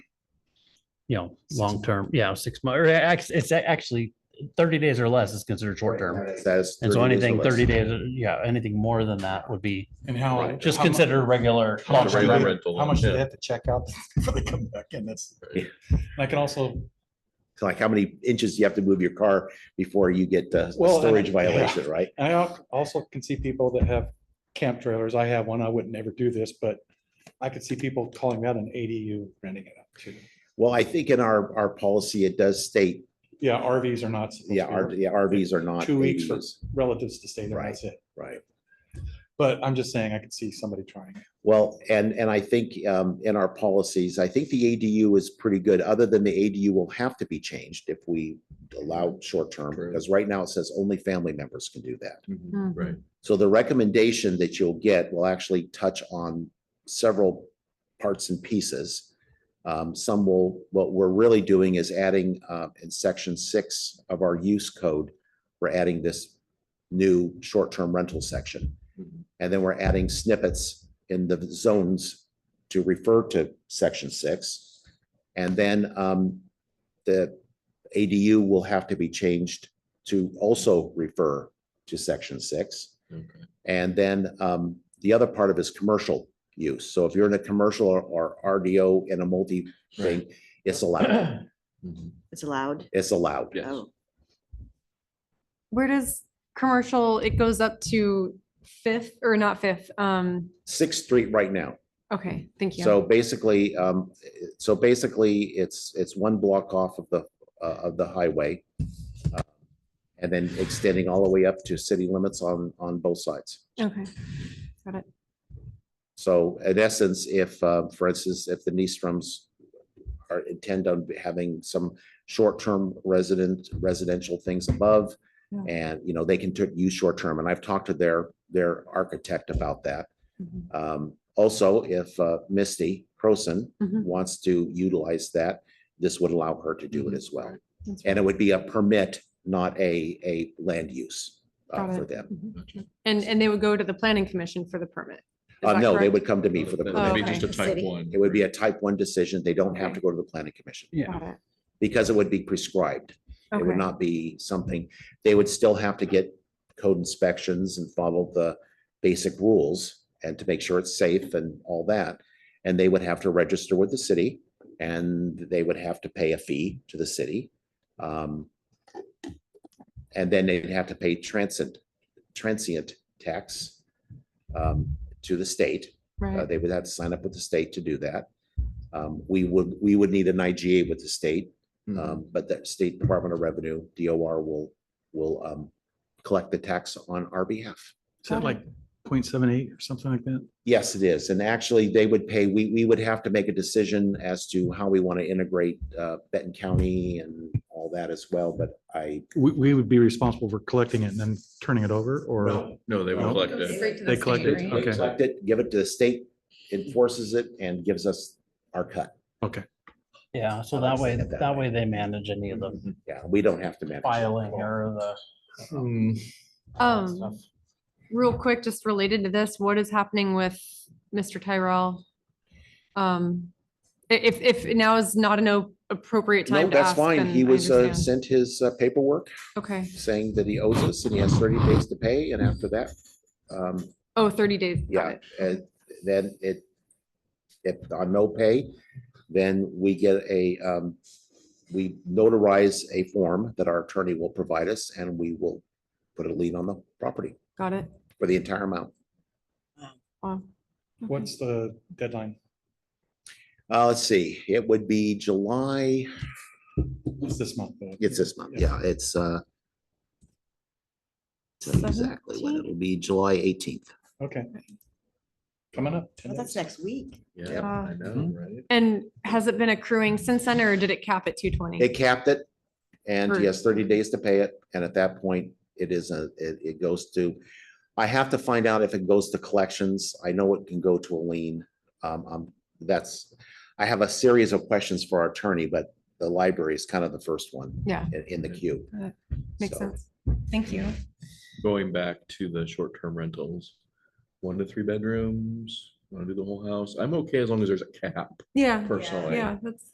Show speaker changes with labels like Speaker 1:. Speaker 1: you know, long term, yeah, six months, or act- it's a- actually thirty days or less is considered short term.
Speaker 2: That's
Speaker 1: And so anything thirty days, uh, yeah, anything more than that would be
Speaker 3: And how?
Speaker 1: just
Speaker 3: how mu-
Speaker 1: considered regular.
Speaker 3: how much
Speaker 1: long-term
Speaker 3: do they-
Speaker 1: rental.
Speaker 3: How much do they have to check out before they come back in? That's,
Speaker 2: Yeah.
Speaker 3: I can also.
Speaker 2: Like how many inches you have to move your car before you get the the
Speaker 3: Well, and-
Speaker 2: storage
Speaker 3: yeah.
Speaker 2: violation, right?
Speaker 3: And I al- also can see people that have camp trailers. I have one. I would never do this, but I could see people calling that an ADU renting it out too.
Speaker 2: Well, I think in our, our policy, it does state,
Speaker 3: Yeah, RVs are not. supposed to
Speaker 2: yeah,
Speaker 3: be
Speaker 2: R- yeah, RVs are not.
Speaker 3: Two weeks for
Speaker 2: ADUs,
Speaker 3: relatives to stay there. That's it.
Speaker 2: Right.
Speaker 3: But I'm just saying I could see somebody trying. it.
Speaker 2: Well, and, and I think um, in our policies, I think the ADU is pretty good, other than the ADU will have to be changed if we allow short-term,
Speaker 4: True. Mm-hmm,
Speaker 2: because right now it says only family members can do that.
Speaker 4: Right.
Speaker 2: So the recommendation that you'll get will actually touch on several parts and pieces. Um, some will, what we're really doing is adding, uh, in section six of our use code, we're adding this new short-term rental section.
Speaker 4: Mhm.
Speaker 2: And then we're adding snippets in the zones to refer to section six. And then, um, the ADU will have to be changed to also refer to section six.
Speaker 4: Okay.
Speaker 2: And then um, the other part of it is commercial use. So if you're in a commercial or- or RDO in a multi thing, it's allowed, Mm-hmm.
Speaker 4: Mhm.
Speaker 5: It's allowed.
Speaker 2: it's allowed.
Speaker 4: Yes.
Speaker 5: Oh,
Speaker 6: Where does commercial, it goes up to fifth or not fifth? Um,
Speaker 2: Sixth Street right now.
Speaker 6: okay, thank you.
Speaker 2: So basically, um, so basically, it's, it's one block off of the, uh, of the highway. uh, And then extending all the way up to city limits on, on both sides.
Speaker 6: Okay.
Speaker 2: So in essence, if, uh, for instance, if the Niestrums are intend on having some short-term resident, residential things above,
Speaker 6: Yeah.
Speaker 2: and, you know, they can tur- use short-term, and I've talked to their, their architect about that.
Speaker 6: Mhm.
Speaker 2: Um, Also, if uh, Misty Croson
Speaker 6: Mhm.
Speaker 2: wants to utilize that, this would allow her to do it as well.
Speaker 6: Mm-hmm. That's
Speaker 2: And it would be a permit, not a, a land use uh,
Speaker 6: Got
Speaker 2: for
Speaker 6: it.
Speaker 2: them.
Speaker 4: Gotcha.
Speaker 6: Mm-hmm. And, and they would go to the planning commission for the permit? Is
Speaker 2: Uh,
Speaker 6: that
Speaker 2: No, they
Speaker 6: correct?
Speaker 2: would come to me for the
Speaker 4: That-
Speaker 6: Oh,
Speaker 4: that'd be
Speaker 2: permit.
Speaker 4: just a
Speaker 6: okay.
Speaker 5: The
Speaker 4: type
Speaker 5: city.
Speaker 4: one.
Speaker 2: It would be a type one decision. They don't have to go
Speaker 6: Okay.
Speaker 2: to the planning commission.
Speaker 1: Yeah.
Speaker 6: Got it.
Speaker 2: because it would be prescribed. It would
Speaker 6: Okay.
Speaker 2: not be something, they would still have to get code inspections and follow the basic rules and to make sure it's safe and all that. And they would have to register with the city and they would have to pay a fee to the city. Um, And then they'd have to pay transient, transient tax um, to the state. Uh,
Speaker 6: Right,
Speaker 2: They would have to sign up with the state to do that. Um, We would, we would need an IGA with the state
Speaker 4: Mhm.
Speaker 2: um, but the State Department of Revenue, DOR will, will, um, collect the tax on our behalf.
Speaker 3: Is that like 0.78 or something like that?
Speaker 2: Yes, it is. And actually, they would pay, we, we would have to make a decision as to how we want to integrate, uh, Benton County and all that as well, but I,
Speaker 3: We, we would be responsible for collecting it and then turning it over or?
Speaker 4: No, they would
Speaker 3: No.
Speaker 2: Oh.
Speaker 4: collect it.
Speaker 3: They collected,
Speaker 2: we
Speaker 3: okay,
Speaker 2: collect it, give it to the state, enforces it, and gives us our cut.
Speaker 3: okay.
Speaker 1: Yeah, so
Speaker 2: I
Speaker 1: that
Speaker 2: like
Speaker 1: way,
Speaker 2: it that
Speaker 1: that
Speaker 2: way.
Speaker 1: way they manage any of the
Speaker 2: Yeah, we don't have to
Speaker 3: Mm-hmm.
Speaker 2: manage. it.
Speaker 1: filing or the.
Speaker 4: Hmm.
Speaker 1: all that
Speaker 6: Um,
Speaker 1: stuff.
Speaker 6: real quick, just related to this, what is happening with Mr. Tyrell? Um, i- if, if now is not an o- appropriate
Speaker 2: No,
Speaker 6: time to
Speaker 2: that's
Speaker 6: ask.
Speaker 2: fine.
Speaker 6: then
Speaker 2: He
Speaker 6: I
Speaker 2: was, uh,
Speaker 6: understand.
Speaker 2: sent his uh, paperwork
Speaker 6: Okay,
Speaker 2: saying that he owes us and he has thirty days to pay, and after that, um,
Speaker 6: oh, 30 days. Got
Speaker 2: Yeah,
Speaker 6: it.
Speaker 2: and then it, if on no pay, then we get a, um, we notarize a form that our attorney will provide us and we will put a lien on the property
Speaker 6: Got it.
Speaker 2: for the entire amount.
Speaker 6: Wow. Okay.
Speaker 3: What's the deadline?
Speaker 2: Uh, let's see, it would be July,
Speaker 3: It's this month. though.
Speaker 2: it's this month, yeah, it's, uh, tell you exactly when
Speaker 6: 17th?
Speaker 2: it'll be, July eighteenth.
Speaker 3: Okay. Coming up.
Speaker 5: well, that's next week.
Speaker 4: Yeah,
Speaker 6: Uh,
Speaker 4: I
Speaker 2: Mm-hmm.
Speaker 4: know, right?
Speaker 6: And has it been accruing since then, or did it cap at two
Speaker 2: They
Speaker 6: twenty?
Speaker 2: capped it and he
Speaker 6: Or-
Speaker 2: has thirty days to pay it. And at that point, it is a, it, it goes to, I have to find out if it goes to collections. I know it can go to a lien. Um, um, that's, I have a series of questions for our attorney, but the library is kind of the first one
Speaker 6: Yeah,
Speaker 2: in, in the queue.
Speaker 6: That makes
Speaker 2: So,
Speaker 6: sense. Thank you.
Speaker 4: Going back to the short-term rentals, one to three bedrooms, want to do the whole house. I'm okay as long as there's a cap
Speaker 6: Yeah,
Speaker 4: personally.
Speaker 6: yeah, that's.